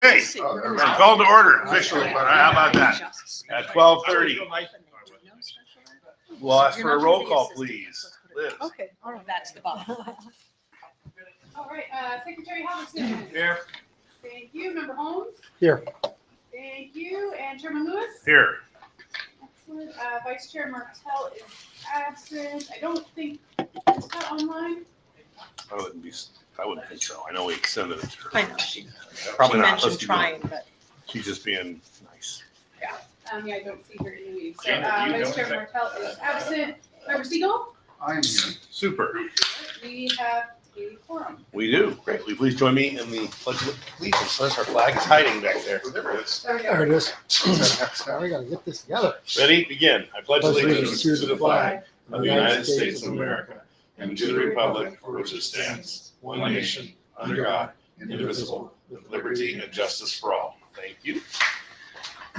Hey, call to order officially, but how about that? At twelve thirty, we'll ask for a roll call, please. Liz, Okay, all right. That's the bottom. All right, uh, Secretary Halverson. Here. Thank you. Member Holmes. Here. Thank you. And Chairman Lewis. here. Excellent. Uh, Vice Chair Martell is absent. I don't think, is that online? I wouldn't be, I wouldn't think so. I know we extended it to her. I know, she, she Probably not. mentioned Let's do it. trying, but She's just being nice. Um, yeah, I don't see her in the meeting. So, Jane, if uh, you Vice don't Chair check- Martell is absent. Member Siegel, I am here. Super. we have a forum. We do. Great. Will you please join me in the pledge of allegiance? Unless our flag is hiding back there. There it is. There we There go. it is. Now we gotta get this together. Ready? Begin. I pledge allegiance to the flag of the United States of America and to the republic for which it stands, one nation, under God, indivisible, with liberty and justice for all. Thank you.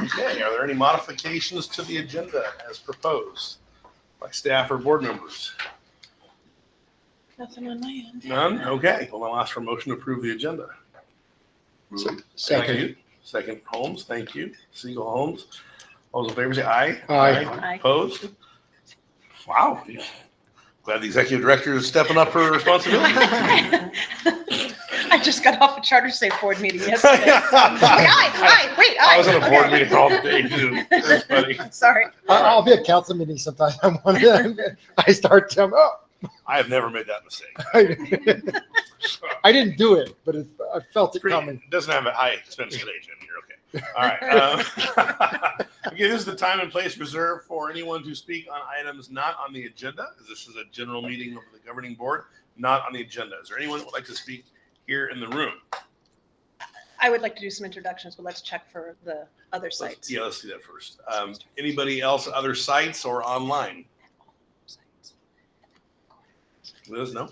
Okay, are there any modifications to the agenda as proposed by staff or board members? nothing on my end. None? Okay, well, I'll ask for a motion to approve the agenda. Thank Second. you. Second, Holmes, thank you. Siegel, Holmes. All those in favor say aye. Aye. Aye. Opposed? Wow. Glad the executive director is stepping up her responsibility. I just got off a charter state board meeting yesterday. Like, I Aye, aye, wait, aye. was on a board Okay. meeting all day too. That's funny. Sorry. I- I'll be at council meetings sometime. I'm one of them. I start to, oh. I have never made that mistake. I didn't do it, but it, I felt it Pretty- coming. it Doesn't have a high expense today, Jim. You're okay. All right. um, Okay, this is the time and place reserved for anyone to speak on items not on the agenda. This is a general meeting of the governing board, not on the agenda. Is there anyone that would like to speak here in the room? I would like to do some introductions, but let's check for the other Let's- sites. Yeah, let's do that first. Um, anybody else, other sites or online? Liz, no?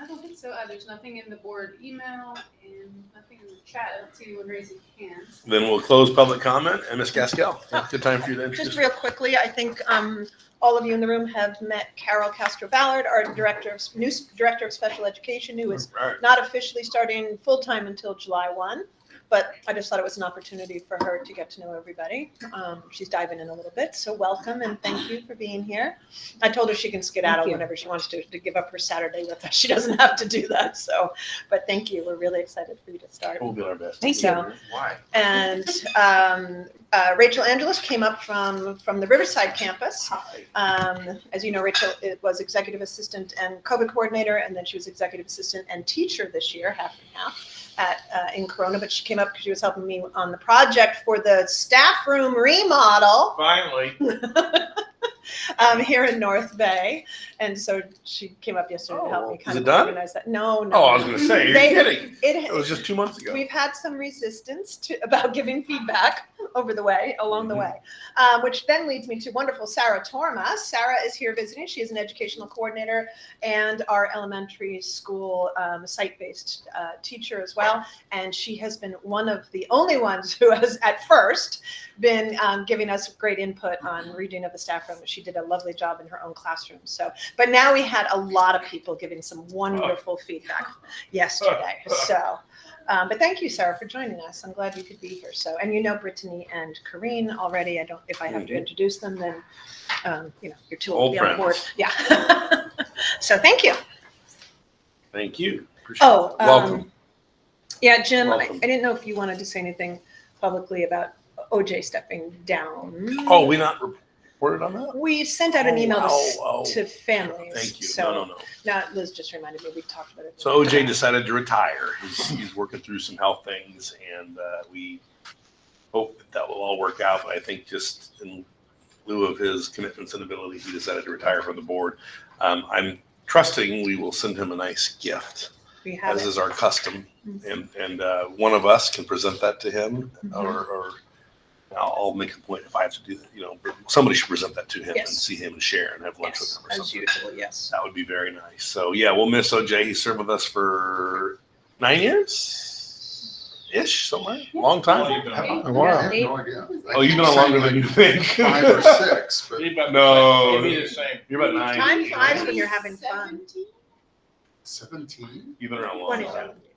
I don't think so. Uh, there's nothing in the board email and nothing in the chat. I don't see anyone raising hands. Then we'll close public comment and Ms. Gaskell. Good time for you to Just introduce. real quickly, I think um, all of you in the room have met Carol Castro Ballard, our director of, new s- director of special education, who is All right. not officially starting full-time until July 1, but I just thought it was an opportunity for her to get to know everybody. Um, She's diving in a little bit, so welcome and thank you for being here. I told her she can skedaddle Thank you. whenever she wants to, to give up her Saturday with us. She doesn't have to do that, so, but thank you. We're really excited for you to start. We'll do our best. Thank you. Why? And um, uh, Rachel Angelus came up from, from the Riverside campus. Hi. Um, as you know, Rachel it was executive assistant and COVID coordinator, and then she was executive assistant and teacher this year, half and half, at uh, in Corona. But she came up because she was helping me on the project for the staff room remodel Finally. um, here in North Bay, and so she came up yesterday to help Oh, me is kind it of done? organize that. No, no. Oh, I was gonna say, you're They- kidding. it, It was just two months ago. We've had some resistance to, about giving feedback over the way, along the way, um, which then leads me to wonderful Sarah Torma. Sarah is here visiting. She is an educational coordinator and our elementary school um, site-based uh, teacher as well. And she has been one of the only ones who has, at first, been um, giving us great input on reading of the staff room. She did a lovely job in her own classroom. So, but now we had a lot of people giving some wonderful feedback yesterday. So. Um, but thank you, Sarah, for joining us. I'm glad you could be here. So, and you know Brittany and Corrine already. I don't, if I have to Mhm. introduce them, then, um, you know, you're too Old old to be on board. friends. Yeah. So thank you. Thank you. Appreciate it. Oh. um, Welcome. Yeah, Jim, I I Welcome. didn't know if you wanted to say anything publicly about OJ stepping down. Oh, we not reported on that? We sent out an Oh, email to s- wow. Oh, to families. Thank you. No, no, So, no. now Liz just reminded me, we talked about it. So OJ decided to retire. He's, he's working through some health things and uh, we hope that that will all work out. But I think just in lieu of his commitments and ability, he decided to retire from the board. Um, I'm trusting we will send him a nice gift, We have as it. Mm-hmm. is our custom. And, and uh, one of us can present that to him or, or I'll, I'll make a point if I have to do that, you know, but somebody should present that to him and Yes. see him and share and have lunch Yes, with him or as something. usual, yes. That would be very nice. So yeah, we'll miss OJ. He served with us for nine years, ish, somewhere, long time. Wow. Eight. idea. Oh, you've been on longer than you think. Five or six, but No. It'd be the same. You're about nine. Time flies when you're having fun. Seventeen? seventeen? You've been around a long. time. Twenty-seven.